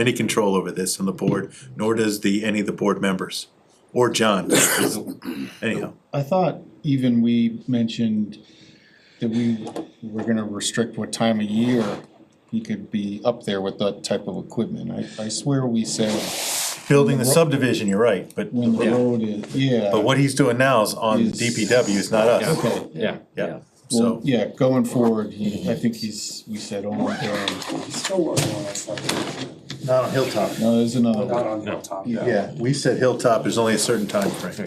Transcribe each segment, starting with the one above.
any control over this on the board, nor does the, any of the board members, or John, anyhow. I thought even we mentioned that we were gonna restrict what time of year he could be up there with that type of equipment. I, I swear we said Building the subdivision, you're right, but, when the Yeah. road is, yeah. but what he's doing now is on Is- DPW, it's not us, Okay, Yeah. yeah, well, so, yeah, going forward, he, I think he's, we said, oh my god, He's still working on that stuff, not on Hilltop. no, there's another but one. not on Hilltop. Yeah, we said Hilltop, there's only a certain time frame.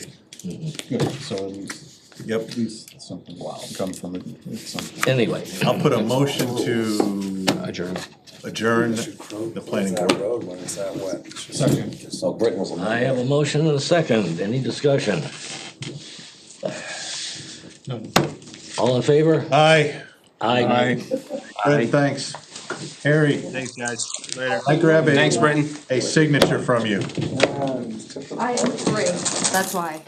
Good, so at least, Yep, at least something will come from it, it's something. Anyway. I'll put a motion to Adjourn. adjourn Should close the planning that board. road when it's that wet. Second. So Britain was a. I have a motion and a second. Any discussion? All in favor? Aye, Aye. Fred, thanks. Harry. Thanks, guys, later. I grab a. Thanks, Britton. A signature from you. I am free, that's why.